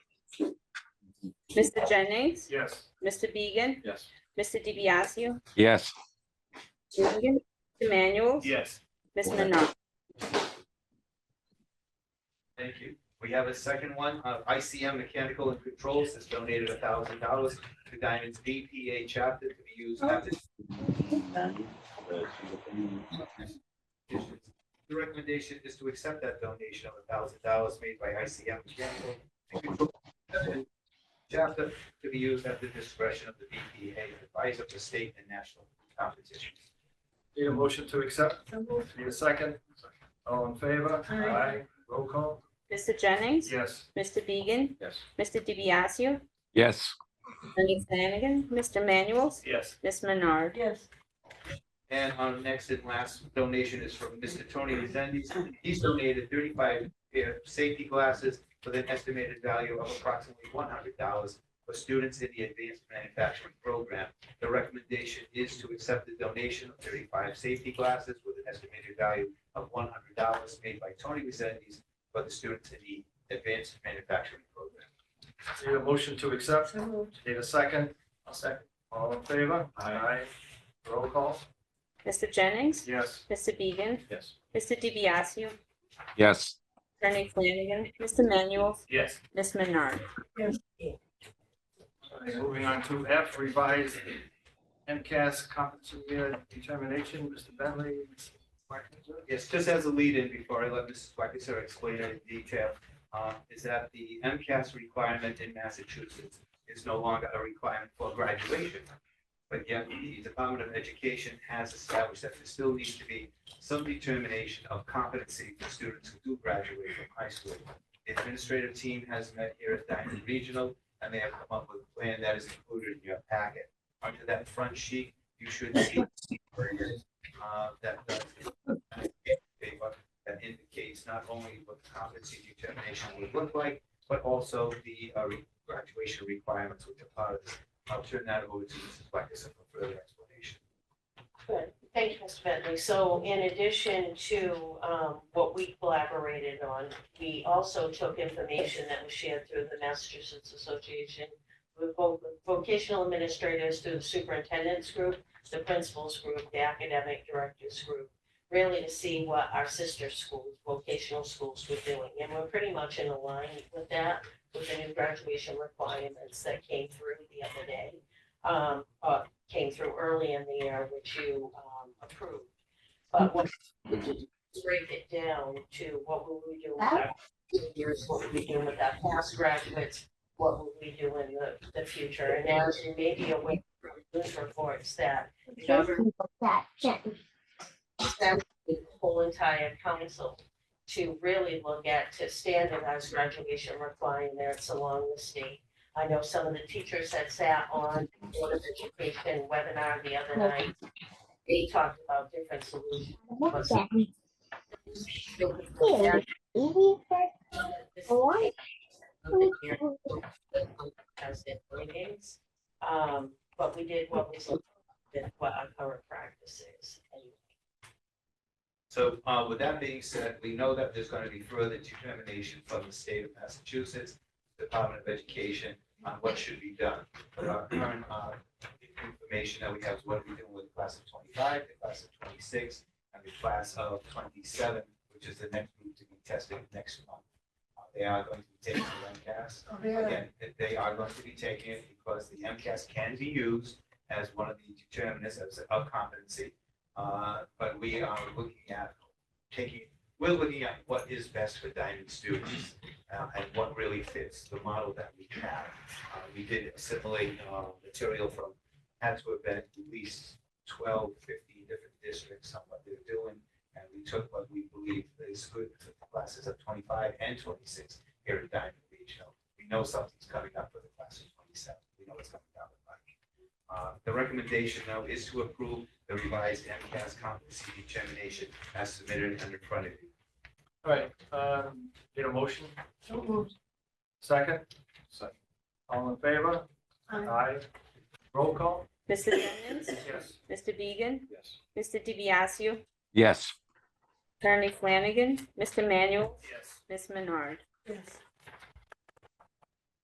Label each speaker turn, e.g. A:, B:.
A: Mr. Jennings,
B: Yes.
A: Mr. Beegan,
B: Yes.
A: Mr. DiBiaseu,
C: Yes.
A: Mr. Egan, Mr. Manuel,
B: Yes.
A: Ms. Menard.
B: Thank you. We have a second one. Uh, ICM Mechanical and Controls has donated a thousand dollars to Diamond's BPA chapter to be used at this. The recommendation is to accept that donation of a thousand dollars made by ICM Mechanical. and Controls Chapter to be used at the discretion of the BPA advisor for state and national competitions.
D: Need a motion to accept? Need a second? All in favor?
A: Aye.
D: Roll call?
A: Mr. Jennings,
D: Yes.
A: Mr. Beegan,
B: Yes.
A: Mr. DiBiaseu,
C: Yes.
A: Attorney Flanagan, Mr. Manuel,
D: Yes.
A: Ms. Menard.
E: Yes.
B: And our next and last donation is from Mr. Tony Rezendes. He's donated thirty-five pair of safety glasses with an estimated value of approximately one hundred dollars for students in the advanced manufacturing program. The recommendation is to accept the donation of thirty-five safety glasses with an estimated value of one hundred dollars made by Tony Rezendes for the students in the advanced manufacturing program.
D: Need a motion to accept?
E: So moved.
D: Need a second? A second. All in favor? Aye. Roll call?
A: Mr. Jennings,
D: Yes.
A: Mr. Beegan,
B: Yes.
A: Mr. DiBiaseu,
C: Yes.
A: Attorney Flanagan, Mr. Manuel,
D: Yes.
A: Ms. Menard.
E: Yes.
D: Moving on to F, revised MCAS competency determination, Mr. Bentley.
B: Yes, just as a lead-in before I let Mrs. Wackister explain it in detail, uh, is that the MCAS requirement in Massachusetts is no longer a requirement for graduation. But yet the Department of Education has established that there still needs to be some determination of competency for students who do graduate from high school. The administrative team has met here at Diamond Regional, and they have come up with a plan that is included in your packet. Under that front sheet, you should see uh, that does paper that indicates not only what the competency determination would look like, but also the uh, re- graduation requirements which are part of this. I'll turn that over to Mrs. Blackison for further explanation.
E: Good. Thank you, Mr. Bentley. So in addition to um, what we collaborated on, we also took information that was shared through the Massachusetts Association with vo- vocational administrators through the superintendent's group, the principals group, the academic directors group, really to see what our sister schools, vocational schools were doing. And we're pretty much in alignment with that, with the new graduation requirements that came through the other day. Um, uh, came through early in the year, which you um, approved. But what, break it down to what will we do with our seniors, what will we do with our past graduates, what will we do in the, the future? And as you may be aware from news reports that government
F: that check.
E: sent the whole entire council to really look at, to standardize graduation requirements along the state. I know some of the teachers that sat on Board of Education webinar the other night, they talked about different solutions.
F: Look at me.
E: This
F: Easy for
E: is something that As in meetings, um, but we did what was, that what our current practice is.
B: So uh, with that being said, we know that there's going to be further determination from the state of Massachusetts, Department of Education, on what should be done. But our current uh, information that we have is what are we doing with the class of 25, the class of 26, and the class of 27, which is the next group to be tested next month. Uh, They are going to be taking the MCAS. Again, that they are going to be taking it because the MCAS can be used as one of the determinants of- of competency. Uh, But we are looking at taking, we're looking at what is best for diamond students uh, and what really fits the model that we have. Uh, We did assimilate uh, material from, had to have been at least 12, 15 different districts on what they're doing. And we took what we believe is good for the classes of 25 and 26 here at Diamond Regional. We know something's coming up for the class of 27. We know what's coming down the pike. Uh, The recommendation now is to approve the revised MCAS competency determination as submitted and in front of you.
D: All right, um, need a motion?
E: So moved.
D: Second? Second. All in favor?
E: Aye.
D: Roll call?
A: Mr. Jennings,
D: Yes.
A: Mr. Beegan,
B: Yes.
A: Mr. DiBiaseu,
C: Yes.
A: Attorney Flanagan, Mr. Manuel,
D: Yes.
A: Ms. Menard.
E: Yes.